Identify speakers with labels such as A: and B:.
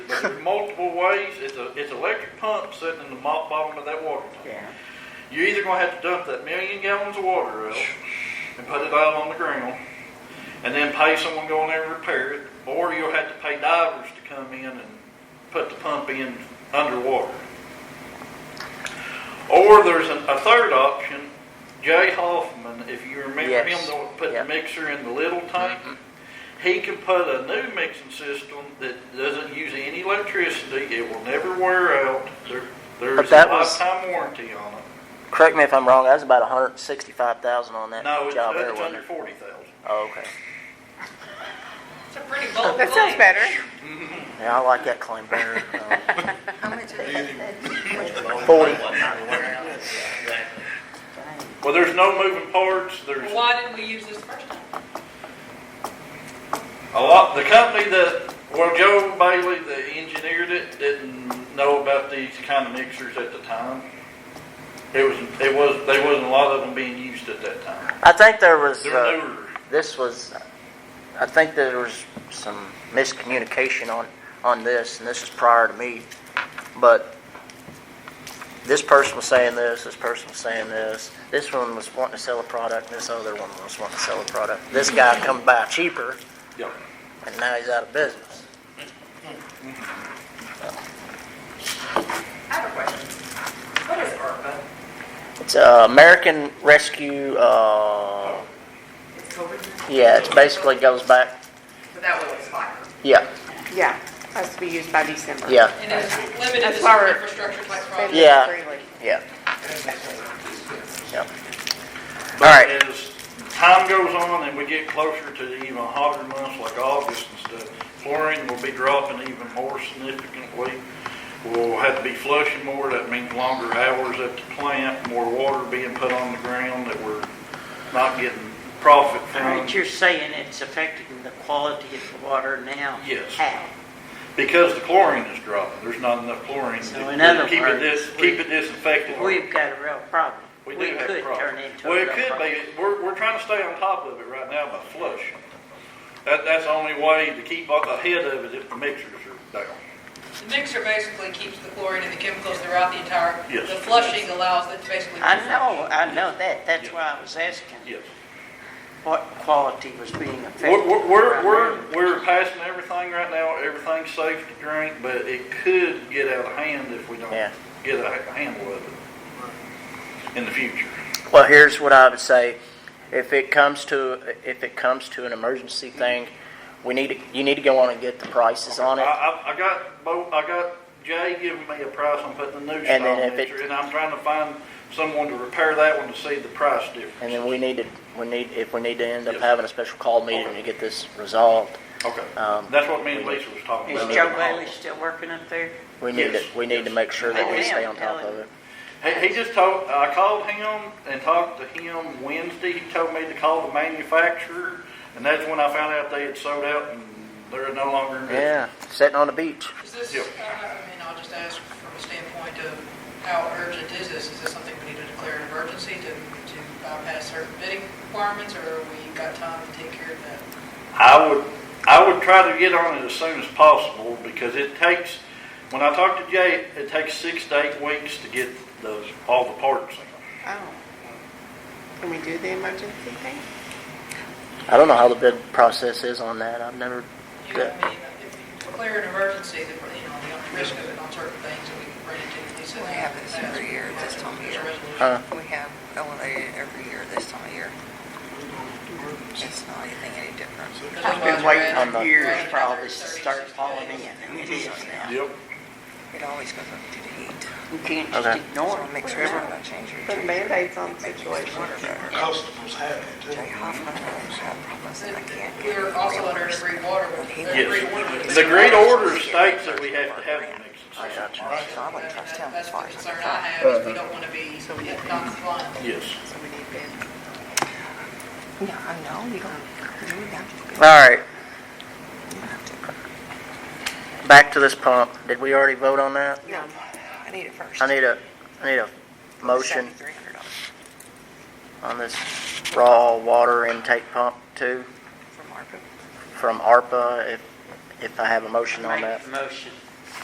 A: multiple ways. It's a, it's electric pump sitting in the mo- bottom of that water tank.
B: Yeah.
A: You're either gonna have to dump that million gallons of water out and put it out on the ground, and then pay someone to go in there and repair it, or you'll have to pay divers to come in and put the pump in underwater. Or there's an, a third option, Jay Hoffman, if you remember him,
B: Yes.
A: the one that put the
B: Yep. Mm-hmm.
A: mixer in the little tank. He can put a new mixing system that doesn't use any electricity, it will never wear out, there,
B: But
A: there's a
B: that was-
A: lifetime warranty on it.
B: Correct me if I'm wrong, that was about hundred and sixty-five thousand on that
A: No, it's,
B: job there,
A: it's
B: wasn't
A: under
B: it?
A: forty thousand.
B: Oh, okay.
C: It's a pretty bold
D: That sounds
C: claim.
D: better.
B: Yeah, I like that claim better. Um,
E: How much is that?
B: Forty.
A: Well, there's no moving parts, there's
C: Why didn't we use this first time?
A: a lot, the company that, well, Joe Bailey, the engineer that didn't know about these kind of mixers at the time. It was, it was, there wasn't a lot of them being used at that time.
B: I think there was,
A: They're
B: uh,
A: newer.
B: this was, I think there was some miscommunication on, on this, and this is prior to me. But this person was saying this, this person was saying this, this one was wanting to sell a product, and this other one was wanting to sell a product. This guy come by cheaper,
A: Yeah.
B: and now he's out of business.
C: I have a question. What is ARPA?
B: It's uh, American Rescue, uh,
C: It's COVID,
B: yeah, it basically goes back,
C: but that will expire.
B: yeah,
D: Yeah, has to be used by December.
B: yeah,
C: And it's limited to
D: That's why
C: certain
D: we're-
C: infrastructure like
D: They
C: roads.
B: Yeah.
D: live freely.
B: yeah. Yep.
A: But
B: All right.
A: As time goes on and we get closer to the even hotter months like August and stuff, chlorine will be dropping even more significantly. We'll have to be flushing more, that means longer hours at the plant, more water being put on the ground that we're not getting profit
F: All right,
A: from.
F: you're saying it's affecting the quality of the water now?
A: Yes.
F: How?
A: Because the chlorine is dropping, there's not enough chlorine
F: So in
A: to
F: other
A: keep it
F: words,
A: dis,
F: we-
A: keep it disinfected.
F: We've got a real problem.
A: We do have a
F: could
A: problem.
F: turn into a
A: Well,
F: real
A: it could
F: problem.
A: be, we're, we're trying to stay on top of it right now by flush. That, that's the only way to keep up ahead of it if the mixers are down.
C: The mixer basically keeps the chlorine and the chemicals throughout the entire,
A: Yes.
C: the flushing allows it to basically.
F: I know, I know that, that's why I was asking
A: Yes.
F: what quality was being affected.
A: We're, we're,
F: primarily.
A: we're, we're passing everything right now, everything's safe to drink, but it could get out of hand if we don't
B: Yeah.
A: get a a handle of it in the future.
B: Well, here's what I would say. If it comes to, if it comes to an emergency thing, we need, to- you need to go on and get the prices on
A: I,
B: it.
A: I, I got, Bo, I got Jay giving me a price on putting the new
B: And then
A: stall
B: if it-
A: mixer, and I'm trying to find someone to repair that one to see the price difference.
B: And then we need to, we need, if we need to end up
A: Yes.
B: having a special call meeting to get this resolved,
A: Okay,
B: Um,
A: that's what me and Lisa was talking
F: Is
A: about.
F: Joe Bailey still working up there?
B: we need to,
A: Yes.
B: we need to make sure that we stay on top of it.
A: He, he just told, I called him and talked to him Wednesday, he told me to call the manufacturer, and that's when I found out they had sold out and they're no longer in business.
B: Yeah, sitting on the beach.
C: Is this,
A: Yeah.
C: uh, I mean, I'll just ask from a standpoint of how urgent is this? Is this something we need to declare an emergency to, to bypass certain bidding requirements, or we got time to take care of that?
A: I would, I would try to get on it as soon as possible, because it takes, when I talked to Jay, it takes six to eight weeks to get those, all the parts in.
D: Oh. Can we do the emergency thing?
B: I don't know how the bid process is on that. I've never,
C: You know, I mean, if you declare an emergency, then, you know, the risk of it on certain things, that we can bring it to, Lisa.
E: We have this every year at this time of year.
F: Uh,
B: huh?
E: We have elevated every year this time of year. It's not anything any different.
F: I've been waiting for years for all this to start falling in, and it is now.
A: Yep.
E: It always goes up to the heat.
F: You can't
B: Okay.
F: just ignore
E: So
F: it.
E: make sure it's not changing.
D: Put Band-Aids on the situation.
G: customers have it too.
E: Jay Hoffman has had problems that I can't get.
C: We're also under an agreed water with.
A: Yes. The great order states that we have to have the mixes.
E: So I wouldn't trust him as
C: That's
E: far
C: the
E: as
C: concern
E: I
C: I have, is we don't want to be non-compliant.
A: Yes.
D: So we need bids.
E: can. No, I know, you don't, you have to.
B: All right,
E: you have to-
B: back to this pump. Did we already vote on that?
D: No,
E: I need it first.
B: I need a, I need a motion
E: $7,300
B: on this raw water intake pump too.
E: from ARPA.
B: from ARPA, if, if I have a motion on
F: Make
B: that.
F: a motion